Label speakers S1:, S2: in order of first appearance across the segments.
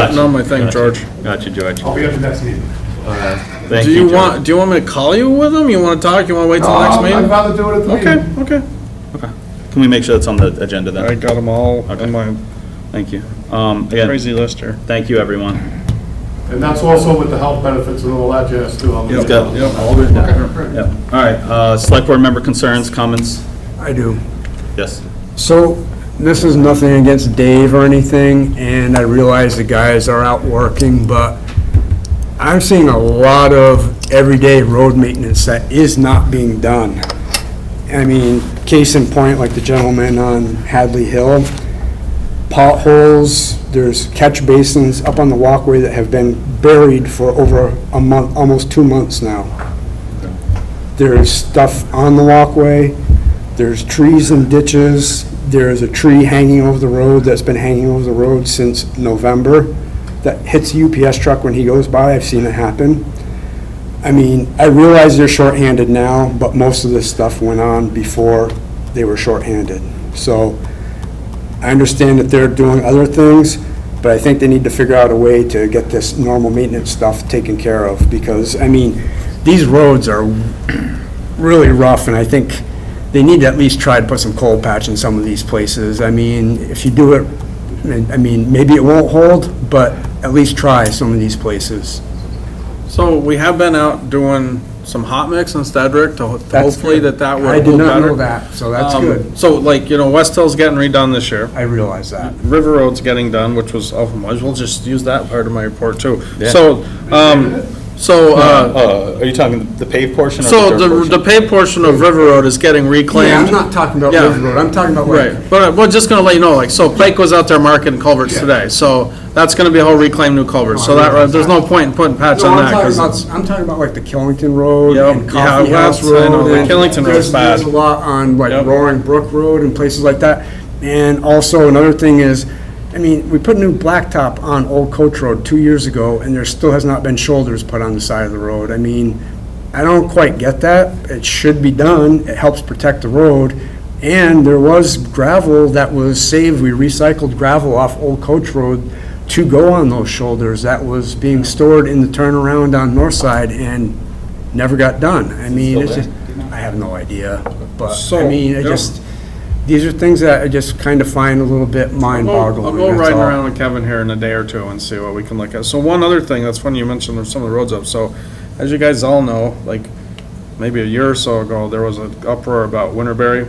S1: Not, not my thing,
S2: Gotcha.
S1: George. Oh,
S2: Gotcha, George.
S3: I'll be at the next meeting.
S2: Thank
S1: Do you
S2: George.
S1: want, do you want me to call you with them? You wanna talk? You wanna wait till the next
S3: I'd
S1: meeting?
S3: rather do it at the meeting.
S1: Um, Okay, okay.
S2: Can we make sure that's on the agenda
S1: I
S2: then?
S1: got them all
S2: Okay.
S1: in my
S2: Thank you. Um, Again,
S1: crazy list here.
S2: thank you, everyone.
S3: And that's also with the health benefits and all that jazz too. I'm gonna-
S1: Yep,
S2: go.
S1: yep, all written down.
S2: Yep. All right, uh, select board member concerns, comments?
S4: I do.
S2: Yes.
S4: So, this is nothing against Dave or anything, and I realize the guys are out working, but I'm seeing a lot of everyday road maintenance that is not being done. I mean, case in point, like the gentleman on Hadley Hill, potholes, there's catch basins up on the walkway that have been buried for over a month, almost two months now. There's stuff on the walkway, there's trees and ditches, there's a tree hanging over the road that's been hanging over the road since November that hits a UPS truck when he goes by, I've seen it happen. I mean, I realize they're shorthanded now, but most of this stuff went on before they were shorthanded. So I understand that they're doing other things, but I think they need to figure out a way to get this normal maintenance stuff taken care of, because, I mean, these roads are really rough, and I think they need to at least try to put some coal patch in some of these places. I mean, if you do it, I mean, maybe it won't hold, but at least try some of these places.
S1: So we have been out doing some hot mix in Stedrick to ho- to
S4: That's
S1: hopefully
S4: good.
S1: that that would
S4: I
S1: hold
S4: did
S1: better.
S4: not know that, so that's
S1: Um,
S4: good.
S1: So like, you know, West Hill's getting redone this year.
S4: I realize that.
S1: River Road's getting done, which was, oh, might as well just use that part of my report too. So, um, so, uh,
S2: Uh, Are you talking the paved portion or the
S1: so
S2: dirt
S1: the,
S2: portion?
S1: the paved portion of River Road is getting reclaimed.
S4: Yeah, I'm not talking about
S1: Yeah.
S4: River Road, I'm talking about like,
S1: Right, but we're just gonna let you know, like, so Pike was out there marking culverts today, so that's gonna be a whole reclaim new culverts. So that, uh, there's no point in putting patch
S4: No,
S1: on
S4: I'm
S1: that,
S4: talking
S1: 'cause
S4: about, I'm talking about like the Killington Road
S1: Yep,
S4: and
S1: yeah,
S4: Coffee House
S1: that's- I know,
S4: Road.
S1: the
S4: and
S1: Killington Road's
S4: there's- There's a
S1: bad.
S4: lot
S1: Yep.
S4: on like Roaring Brook Road and places like that. And also another thing is, I mean, we put new blacktop on Old Coach Road two years ago and there still has not been shoulders put on the side of the road. I mean, I don't quite get that. It should be done. It helps protect the road. And there was gravel that was saved. We recycled gravel off Old Coach Road to go on those shoulders that was being stored in the turnaround on North Side and never got done. I mean, it's just, I have no idea, but, I
S1: So,
S4: mean, I
S1: yeah.
S4: just, these are things that I just kind of find a little bit mind
S1: I'll
S4: boggling.
S1: go- I'll go
S4: that's
S1: riding
S4: all.
S1: around with Kevin here in a day or two and see what we can look at. So one other thing, that's funny you mentioned some of the roads up, so as you guys all know, like, maybe a year or so ago, there was an uproar about Winterberry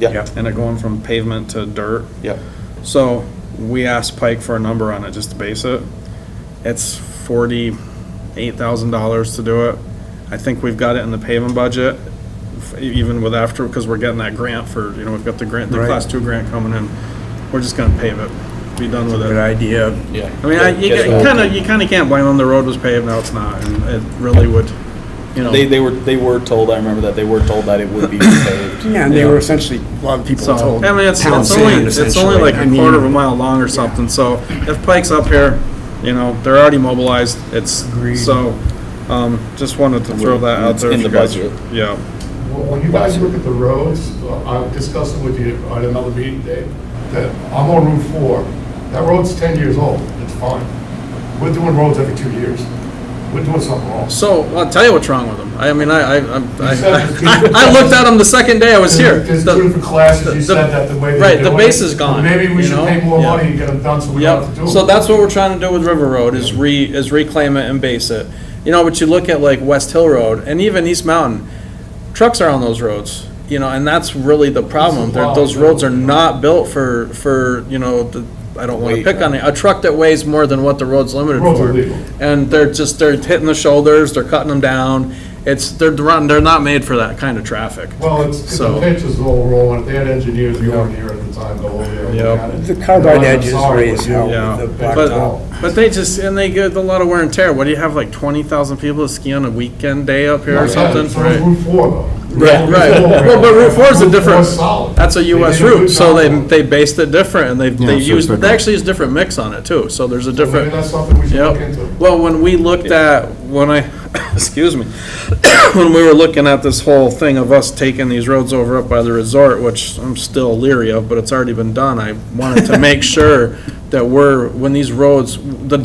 S2: Yeah,
S1: and it going from pavement to dirt.
S2: yeah.
S1: So we asked Pike for a number on it just to base it. It's forty-eight thousand dollars to do it. I think we've got it in the paving budget, f- even with after, because we're getting that grant for, you know, we've got the grant, the
S4: Right.
S1: class two grant coming in. We're just gonna pave it, be done with
S4: Good
S1: it.
S4: idea.
S1: I mean, I, you
S2: Yes,
S1: ca-
S2: ma'am.
S1: you kinda, you kinda can't blame them, the road was paved, now it's not, and it really would, you know.
S2: They, they were, they were told, I remember that, they were told that it would be paved.
S4: Yeah, and they were essentially, a lot of people
S1: So,
S4: told.
S1: I mean, it's,
S4: town
S1: it's only,
S4: sand,
S1: it's only like
S4: essentially.
S1: a
S4: I
S1: quarter of
S4: mean,
S1: a mile long or something, so if Pike's up here, you know, they're already mobilized, it's,
S4: Agreed.
S1: so, um, just wanted to throw that out
S2: It's
S1: there.
S2: in the
S1: if you guys-
S2: budget.
S1: Yeah,
S3: Well, When you guys look at the roads, uh, I discussed it with you at another meeting, Dave, that I'm on Route 4. That road's 10 years old, it's fine. We're doing roads every two years. We're doing something wrong.
S1: so, I'll tell you what's wrong with them, I mean, I, I, I'm- I,
S3: You said there's two
S1: I- I looked at them the second day I was here.
S3: There's
S1: The-
S3: two different classes,
S1: the-
S3: you
S1: the-
S3: said that the way they
S1: Right,
S3: do
S1: the
S3: it.
S1: base is gone,
S3: Maybe
S1: you
S3: we should
S1: know?
S3: pay more
S1: Yeah.
S3: money and get them done so we don't have to do
S1: Yep,
S3: them.
S1: so that's what we're trying to do with River Road, is re, is reclaim it and base it. You know, but you look at like West Hill Road and even East Mountain, trucks are on those roads, you know, and that's really the problem. They're- Those roads are not built for, for, you know, the, I don't wanna pick on it, a truck that weighs more than what the road's limited
S3: Roads are
S1: for.
S3: legal.
S1: And they're just, they're hitting the shoulders, they're cutting them down, it's, they're, run- they're not made for that kind of traffic.
S3: Well, it's, it's
S1: So-
S3: the pitch is all rolling, they had engineers going here at the time, go over there. and look
S1: Yep.
S3: at it.
S4: The carbide
S3: And I'm
S4: edges
S3: sorry,
S4: raise
S3: but you-
S4: hell
S1: Yeah,
S4: with the blacktop.
S1: but, but they just, and they get a lot of wear and tear. What, do you have like twenty thousand people that ski on a weekend day up here or something?
S3: So it's Route 4 though.
S1: Right, right. Well, but Route Four is a different,
S3: Route 4 is solid.
S1: that's a
S3: They
S1: US
S3: did a good
S1: route, so they,
S3: job.
S1: they based it different and they, they
S5: so
S1: used,
S5: it's
S1: they actually use different mix on it too, so there's a
S3: Maybe
S1: different.
S3: that's something we should look into.
S1: Yep. Well, when we looked at, when I, excuse me, when we were looking at this whole thing of us taking these roads over up by the resort, which I'm still leery of, but it's already been done, I wanted to make sure that we're, when these roads, the